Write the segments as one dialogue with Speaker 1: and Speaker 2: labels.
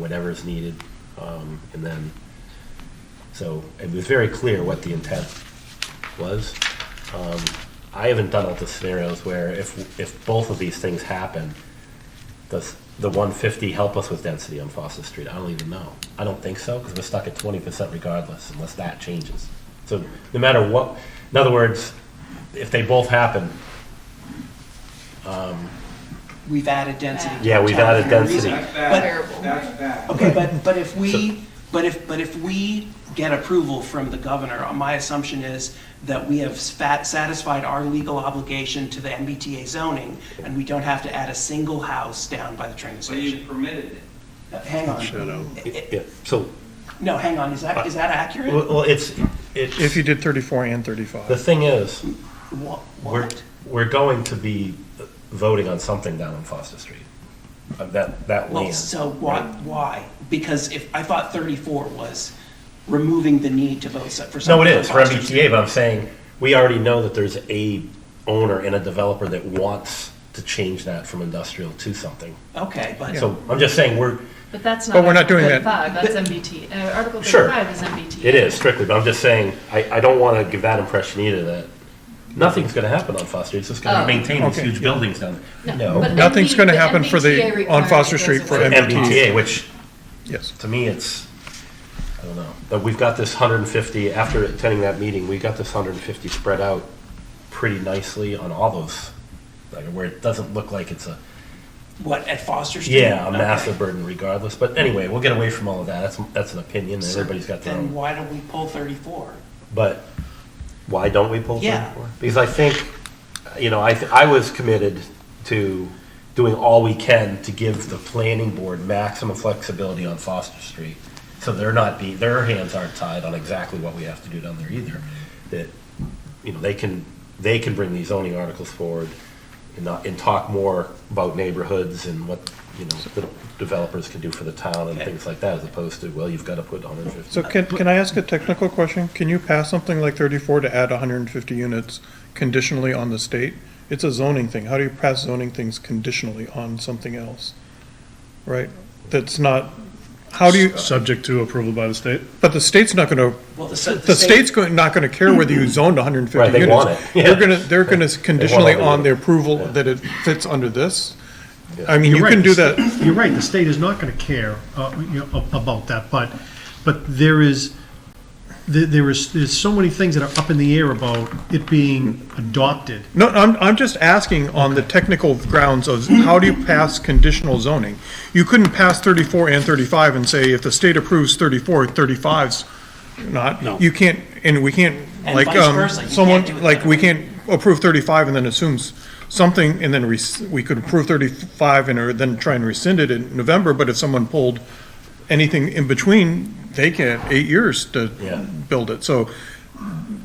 Speaker 1: whatever's needed. Um, and then, so it was very clear what the intent was. Um, I haven't done all the scenarios where if, if both of these things happen, does the 150 help us with density on Foster Street? I don't even know. I don't think so, because we're stuck at 20% regardless, unless that changes. So no matter what, in other words, if they both happen,
Speaker 2: We've added density. to
Speaker 1: Yeah,
Speaker 2: our
Speaker 1: we've
Speaker 2: town
Speaker 1: added
Speaker 2: for a
Speaker 1: density.
Speaker 2: reason.
Speaker 3: That's
Speaker 2: But-
Speaker 3: bad, that's bad.
Speaker 2: Okay, but, but if we, but if, but if we get approval from the governor, my assumption is that we have spat- satisfied our legal obligation to the MBTA zoning, and we don't have to add a single house down by the train
Speaker 3: But you
Speaker 2: station.
Speaker 3: permitted it.
Speaker 2: Uh, Hang on.
Speaker 1: it- it- so,
Speaker 2: No, hang on, is that, is that accurate?
Speaker 1: well, well, it's, it's.
Speaker 4: If you did 34 and
Speaker 1: The
Speaker 4: 35.
Speaker 1: thing is,
Speaker 2: Wha-
Speaker 1: we're,
Speaker 2: What?
Speaker 1: we're going to be voting on something down on Foster Street. Uh, That, that
Speaker 2: Well,
Speaker 1: land.
Speaker 2: so why, why? Because if, I thought 34 was removing the need to vote so- for
Speaker 1: No,
Speaker 2: something.
Speaker 1: it is for
Speaker 2: Foster Street.
Speaker 1: MBTA, but I'm saying, we already know that there's a owner and a developer that wants to change that from industrial to something.
Speaker 2: Okay, but.
Speaker 1: So I'm just saying, we're,
Speaker 5: But that's not.
Speaker 4: But we're not
Speaker 5: Article
Speaker 4: doing
Speaker 5: 35,
Speaker 4: that.
Speaker 5: That's MBT, uh, Article
Speaker 1: Sure.
Speaker 5: 35 is MBT.
Speaker 1: it is strictly, but I'm just saying, I, I don't want to give that impression either, that nothing's going to happen on Foster. Street. It's just going
Speaker 5: Oh.
Speaker 1: to maintain these
Speaker 4: Okay.
Speaker 1: huge buildings down there.
Speaker 5: but
Speaker 1: No,
Speaker 4: Nothing's
Speaker 5: MB
Speaker 4: gonna
Speaker 5: the
Speaker 4: happen for the-
Speaker 5: MBTA
Speaker 4: on Foster
Speaker 5: requirement
Speaker 4: Street
Speaker 5: goes
Speaker 4: for
Speaker 5: away.
Speaker 1: MBTA, which
Speaker 4: Yes.
Speaker 1: to me, it's, I don't know, but we've got this 150, after attending that meeting, we got this 150 spread out pretty nicely on all those, like, where it doesn't look like it's a,
Speaker 2: What, at Foster Street?
Speaker 1: yeah, a
Speaker 2: Okay.
Speaker 1: massive burden regardless, but anyway, we'll get away from all of that, that's, that's an opinion, and
Speaker 2: So
Speaker 1: everybody's got their
Speaker 2: Then
Speaker 1: own.
Speaker 2: why don't we pull 34?
Speaker 1: But why don't we pull
Speaker 2: Yeah.
Speaker 1: 34? Because I think, you know, I, th- I was committed to doing all we can to give the planning board maximum flexibility on Foster Street. So they're not be, their hands aren't tied on exactly what we have to do down there either. That, you know, they can, they can bring these zoning articles forward and not, and talk more about neighborhoods and what, you know, the developers can do for the town and things like that, as opposed to, well, you've got to put 150.
Speaker 4: So can, can I ask a technical question? Can you pass something like 34 to add 150 units conditionally on the state? It's a zoning thing. How do you pass zoning things conditionally on something else? Right? That's not, how do you,
Speaker 6: Subject to approval by the state?
Speaker 4: but the state's not going to
Speaker 2: Well, the state.
Speaker 4: The state's going, not gonna care whether you zoned hundred and fifty
Speaker 1: Right,
Speaker 4: units.
Speaker 1: they want it, yeah.
Speaker 4: They're gonna, they're gonna conditionally
Speaker 1: all the
Speaker 4: on the
Speaker 1: units,
Speaker 4: approval
Speaker 1: yeah.
Speaker 4: that it fits under this.
Speaker 1: Yeah.
Speaker 4: I mean, you
Speaker 6: You're
Speaker 4: can
Speaker 6: right,
Speaker 4: do
Speaker 6: the
Speaker 4: that,
Speaker 6: sta- You're right, the state is not going to care uh, you know, ab- about that, but, but there is, there- there is, there's so many things that are up in the air about it being adopted.
Speaker 4: no, I'm, I'm just asking on the technical grounds of how do you pass conditional zoning? You couldn't pass thirty-four and thirty-five and say if the state approves 34, 35's not. No. You can't, and we can't,
Speaker 2: And
Speaker 4: like,
Speaker 2: vice
Speaker 4: um,
Speaker 2: versa, you can't do
Speaker 4: someone,
Speaker 2: it
Speaker 4: like,
Speaker 2: that
Speaker 4: we
Speaker 2: way.
Speaker 4: can't approve thirty-five and then assumes something, and then res- we could approve thirty-five and or then try and rescind it in November, but if someone pulled anything in between, they can, eight years to
Speaker 1: Yeah.
Speaker 4: build it, so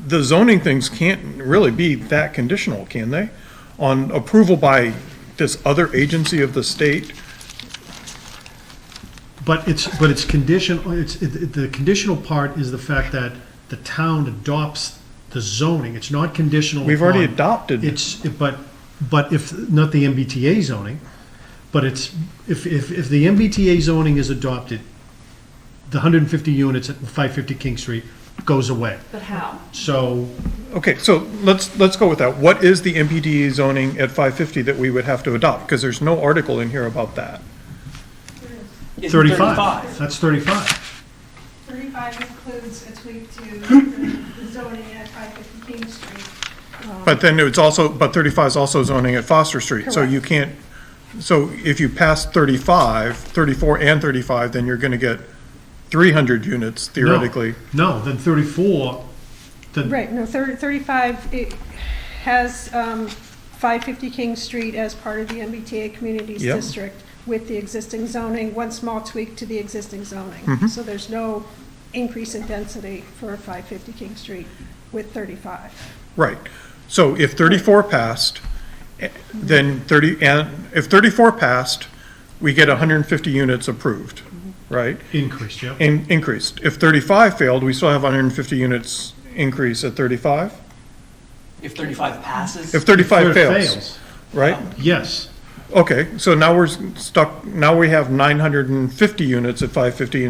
Speaker 4: the zoning things can't really be that conditional, can they? On approval by this other agency of the state,
Speaker 6: But it's, but it's conditional, it's, it- it- the conditional part is the fact that the town adopts the zoning. It's not conditional.
Speaker 4: we've already
Speaker 6: upon-
Speaker 4: adopted.
Speaker 6: It's, but, but if, not the MBTA zoning, but it's, if, if, if the MBTA zoning is adopted, the hundred and fifty units at five fifty King Street goes away.
Speaker 5: But how?
Speaker 6: So,
Speaker 4: Okay, so let's, let's go with that. What is the MPDE zoning at 550 that we would have to adopt? Because there's no article in here about that.
Speaker 2: is
Speaker 6: thirty-five, that's thirty-five.
Speaker 7: 35 includes a tweak to the zoning at 550 King Street.
Speaker 4: But then it's also, but 35 is also zoning at Foster Street. So you can't, so if you pass 35, 34 and 35, then you're going to get 300 units
Speaker 6: No,
Speaker 4: theoretically.
Speaker 6: No, then thirty-four, then,
Speaker 7: Right, no, thir- 35, it has um, 550 King Street as part of the MBTA Communities
Speaker 4: Yep.
Speaker 7: District with the existing zoning, one small tweak to the existing zoning.
Speaker 4: Mhm.
Speaker 7: So there's no increase in density for 550 King Street with 35.
Speaker 4: Right. So if 34 passed, eh, then 30, and if 34 passed, we get 150 units approved, right?
Speaker 6: increased, yeah.
Speaker 4: in, increased. If thirty-five failed, we still have hundred and fifty units increase at thirty-five?
Speaker 2: If 35 passes,
Speaker 4: If thirty-five
Speaker 6: If it
Speaker 4: fails, right?
Speaker 6: Yes,
Speaker 4: Okay, so now we're stuck, now we have nine hundred and fifty units at five fifty